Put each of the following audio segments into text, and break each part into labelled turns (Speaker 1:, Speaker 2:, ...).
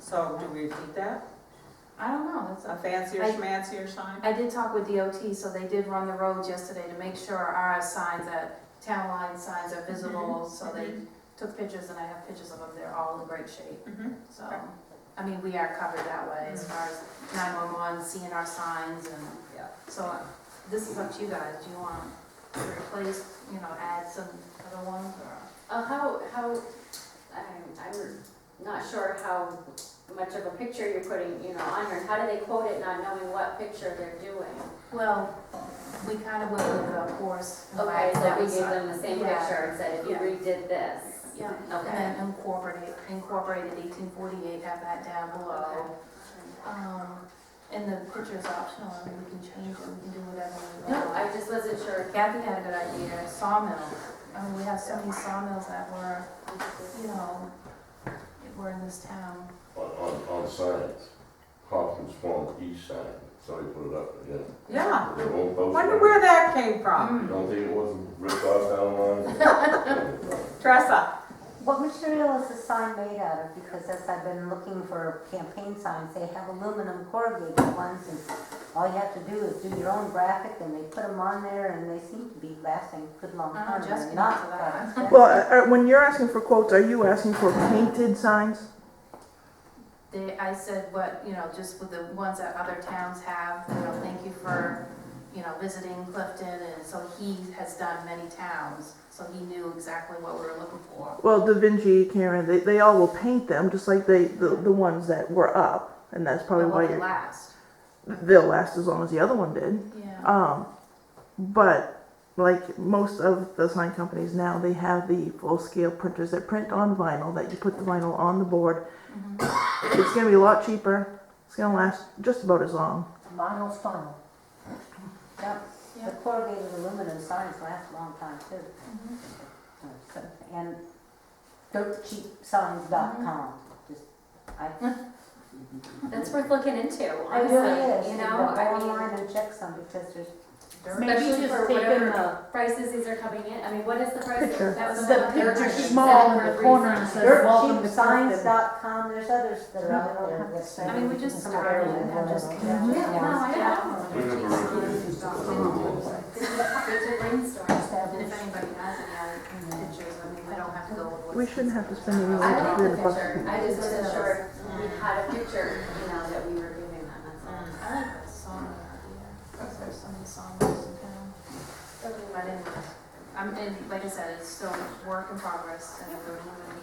Speaker 1: So do we do that?
Speaker 2: I don't know, that's
Speaker 1: A
Speaker 2: up.
Speaker 1: fancier,
Speaker 2: I-
Speaker 1: schmancier sign?
Speaker 2: I did talk with DOT, so they did run the roads yesterday to make sure our signs, that town line signs are visible,
Speaker 3: Mm-hmm.
Speaker 2: so they
Speaker 1: mhm.
Speaker 2: took pictures, and I have pictures of them, they're all in great shape,
Speaker 1: Mhm.
Speaker 2: so.
Speaker 1: Okay.
Speaker 2: I mean, we are covered that way, as
Speaker 3: Mm-hmm.
Speaker 1: Mhm.
Speaker 2: far as nine-one-one, seeing our signs, and
Speaker 1: Yeah.
Speaker 2: so uh, this is up to you guys, do you want to replace, you know, add some other ones, or?
Speaker 3: Uh, how, how, I'm, I'm not sure how much of a picture you're putting, you know, on here. How do they quote it not knowing what picture they're doing?
Speaker 2: Well, we kind of went with the horse. and
Speaker 3: Okay,
Speaker 2: wagon,
Speaker 3: so
Speaker 2: that
Speaker 3: we
Speaker 2: was,
Speaker 3: gave
Speaker 2: uh,
Speaker 3: them the same
Speaker 2: yeah.
Speaker 3: picture and said, if you
Speaker 2: Yeah.
Speaker 3: redid this.
Speaker 2: Yeah. And
Speaker 3: Okay.
Speaker 2: then incorporate, incorporated eighteen forty-eight, have that down below. Um, and the picture's optional, I mean, we can change it, we can do whatever we
Speaker 3: No, I
Speaker 2: want.
Speaker 3: just wasn't sure.
Speaker 2: Kathy had a good idea, sawmill, I mean, Oh, we have so many sawmills that were, you know, that were in this town.
Speaker 4: On, on, on signs, Hopkins Farm East sign, somebody put it up, yeah.
Speaker 1: Yeah,
Speaker 4: They won't post
Speaker 1: wonder
Speaker 4: it.
Speaker 1: where that came from.
Speaker 2: Mm.
Speaker 4: Don't think it wasn't ripped off down the line?
Speaker 1: Dress up.
Speaker 5: What material is the sign made out of? Because as I've been looking for campaign signs, they have aluminum corrugated ones and all you have to do is do your own graphic and they put them on there and they seem to be lasting a good long
Speaker 2: I don't
Speaker 5: time.
Speaker 2: know, Jessica
Speaker 5: They're not
Speaker 2: knows about
Speaker 5: fast.
Speaker 6: Well, uh, uh, when you're asking for quotes, are you asking for painted signs?
Speaker 2: They, I said what, you know, just with the ones that other towns have, you know, thank you for, you know, visiting Clifton, and so he has done many towns, so he knew exactly what we were looking for.
Speaker 6: Well, Da Vinci, Karen, they, they all will paint them, just like they the, the ones that were up, and that's probably
Speaker 2: The one
Speaker 6: why
Speaker 2: that
Speaker 6: you're,
Speaker 2: last,
Speaker 6: they'll last as long as the other one did.
Speaker 2: yeah.
Speaker 6: Um, but like most of the sign companies now, they have the full scale printers that print on vinyl that you put the vinyl on the board.
Speaker 2: uh-huh.
Speaker 6: It's gonna be a lot cheaper. It's gonna last just about as long.
Speaker 5: Vinyl's final. Yep,
Speaker 2: Yeah.
Speaker 5: the corrugated aluminum signs last a long time too. So- And dirtcheapsigns.com, just, I.
Speaker 3: That's worth looking into,
Speaker 5: It really is.
Speaker 3: honestly, you know?
Speaker 5: Go
Speaker 3: I mean,
Speaker 5: online and check some because there's
Speaker 3: especially for whatever prices these are coming in. I mean, what is the price?
Speaker 6: Picture.
Speaker 3: That was
Speaker 7: The
Speaker 3: another
Speaker 7: picture
Speaker 3: thing.
Speaker 7: small in
Speaker 3: Seven
Speaker 7: the
Speaker 3: for
Speaker 7: corner
Speaker 3: three
Speaker 7: and
Speaker 3: signs.
Speaker 7: says, welcome to Clifton.
Speaker 5: dirtcheap.com, there's others that are out there. that's-
Speaker 2: I mean, we just started and have just.
Speaker 5: Yeah.
Speaker 2: Yeah, no, I
Speaker 4: We
Speaker 2: don't
Speaker 4: never
Speaker 2: know.
Speaker 4: really did.
Speaker 3: This is a brainstorm.
Speaker 2: And if anybody has any other pictures, I mean, we don't have to go with what's.
Speaker 6: We shouldn't have to spend
Speaker 3: I
Speaker 6: any more
Speaker 3: like
Speaker 6: than
Speaker 3: the
Speaker 6: a buck.
Speaker 3: picture, I just wasn't sure if we had a picture, you know, that we were giving them, that's all.
Speaker 2: I like the song idea, because there's so many songs in town.
Speaker 3: Mm.
Speaker 2: But anyways, I'm, and like I said, it's still work in progress and we're moving.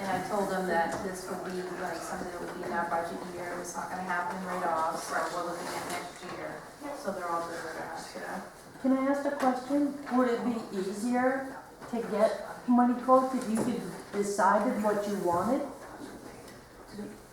Speaker 2: And I told them that this would be like something that would be in our budget year, it's not gonna happen right off, so we're looking at next year. So they're all good with that, yeah.
Speaker 7: Can I ask a question? Would it be easier to get money quotes if you could decided what you wanted?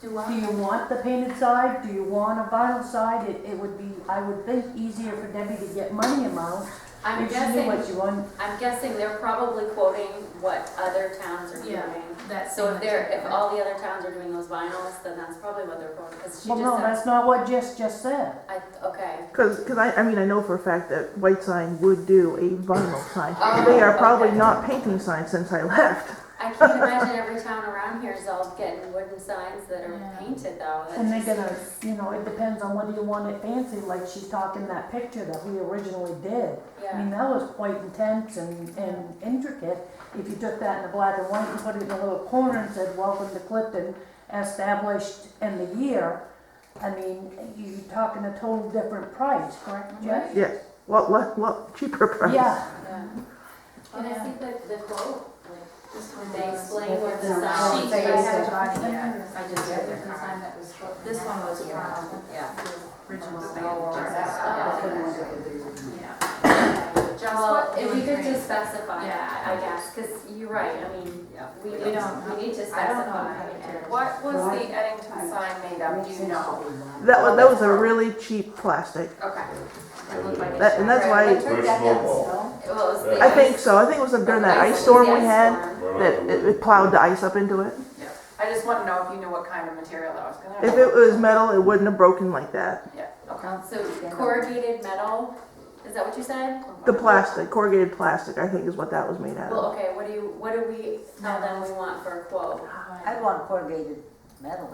Speaker 2: Do
Speaker 7: Do
Speaker 2: I?
Speaker 7: you want the painted side? Do you want a vinyl side? It, it would be, I would think, easier for Debbie to get money amounts
Speaker 3: I'm
Speaker 7: if she knew what
Speaker 3: guessing,
Speaker 7: you want.
Speaker 3: I'm guessing they're probably quoting what other towns are
Speaker 2: Yeah.
Speaker 3: doing.
Speaker 2: That's.
Speaker 3: So if they're, if all the other towns are doing those vinyls, then that's probably what they're quoting, because she
Speaker 7: Well,
Speaker 3: just
Speaker 7: no,
Speaker 3: said,
Speaker 7: that's not what Jess just said.
Speaker 3: I, okay.
Speaker 6: Because, because I, I mean, I know for a fact that White Sign would do a vinyl sign.
Speaker 3: Oh,
Speaker 6: They are probably
Speaker 3: okay.
Speaker 6: not painting signs since I left.
Speaker 3: I can't imagine every town around here is all getting wooden signs that are
Speaker 2: Yeah.
Speaker 3: painted though. That
Speaker 7: And they're
Speaker 3: just
Speaker 7: gonna,
Speaker 3: seems-
Speaker 7: you know, it depends on whether you want it fancy, like she's talking that picture that we originally did. I mean,
Speaker 3: Yeah,
Speaker 7: that was quite intense and, and intricate. If you took that in a black and white and put it in a little corner and said, welcome to Clifton, established in the year, I mean, you're talking a total different price, correct, Jeff?
Speaker 6: Yes. What, what, what cheaper price?
Speaker 7: Yeah,
Speaker 3: yeah. Can I
Speaker 2: Yeah.
Speaker 3: see the, the quote? Like,
Speaker 2: Just
Speaker 3: did
Speaker 2: when
Speaker 3: they explain what the
Speaker 2: She,
Speaker 3: sign?
Speaker 2: I haven't gotten it yet, I just got their card. This one was from
Speaker 1: Yeah.
Speaker 2: the original Yeah.
Speaker 3: Well, if we could just specify
Speaker 2: Yeah.
Speaker 3: that, I guess, because you're right, I mean, we,
Speaker 2: We
Speaker 3: need-
Speaker 2: don't know.
Speaker 3: we need to
Speaker 2: I don't know
Speaker 3: specify.
Speaker 2: how to do it.
Speaker 8: What was the Eddington sign made of, do you know?
Speaker 6: That was, that was a really cheap plastic.
Speaker 8: Okay.
Speaker 6: That, and that's why,
Speaker 4: Where's Snowball?
Speaker 3: Well, it was the
Speaker 6: I think so, I think it was during that ice storm we had,
Speaker 4: Right
Speaker 6: that
Speaker 4: off the
Speaker 6: it
Speaker 4: wood.
Speaker 6: it plowed the ice up into it.
Speaker 8: I just want to know if you knew what kind of material that was gonna be.
Speaker 6: If it was metal, it wouldn't have broken like that.
Speaker 8: Yeah, okay.
Speaker 3: So corrugated metal, is that what you said?
Speaker 6: The plastic, corrugated plastic, I think is what that was made out of.
Speaker 3: Well, okay, what do you, what do we tell them we want for a quote?
Speaker 5: I want corrugated metal.